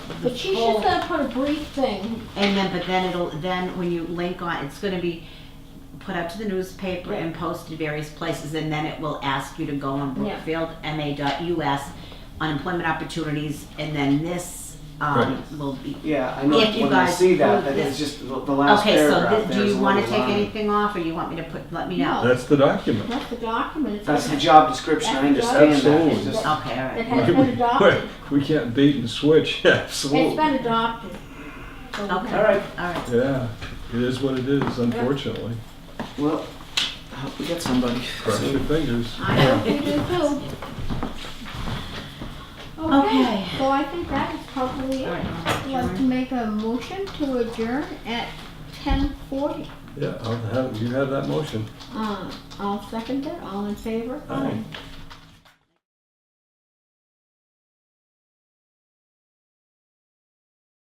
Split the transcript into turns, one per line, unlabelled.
But she's just gonna put a brief thing,
And then, but then it'll, then when you link on, it's gonna be put up to the newspaper and posted various places, and then it will ask you to go on
Yeah.
brookfieldma.us, unemployment opportunities, and then this, um,
Right.
will be.
Yeah, I know,
If you
when I
guys
see that,
approve
that
this-
is just the the last
Okay, so
paragraph
thi-
there
do
is
you
a
wanna
little
take
long.
anything off, or you want me to put, let me know?
That's the document.
that's the document. It's
That's the
okay.
job description, I
That's the
understand that,
Absolutely.
it's just,
Okay, all right.
It has been adopted,
We can't bait and switch,
it's
absolutely.
been adopted. So we
Okay.
have-
all right,
All right,
Yeah, it is what it is, unfortunately.
well, I hope we get somebody.
Cross your fingers.
I hope we do too. Okay,
Okay.
so I think that is probably
all
it. I'd
right.
like to
Adjourn.
make a motion to adjourn at ten forty.
Yeah, I'll have, you have that motion.
Uh, I'll second it, all in favor?
Aye.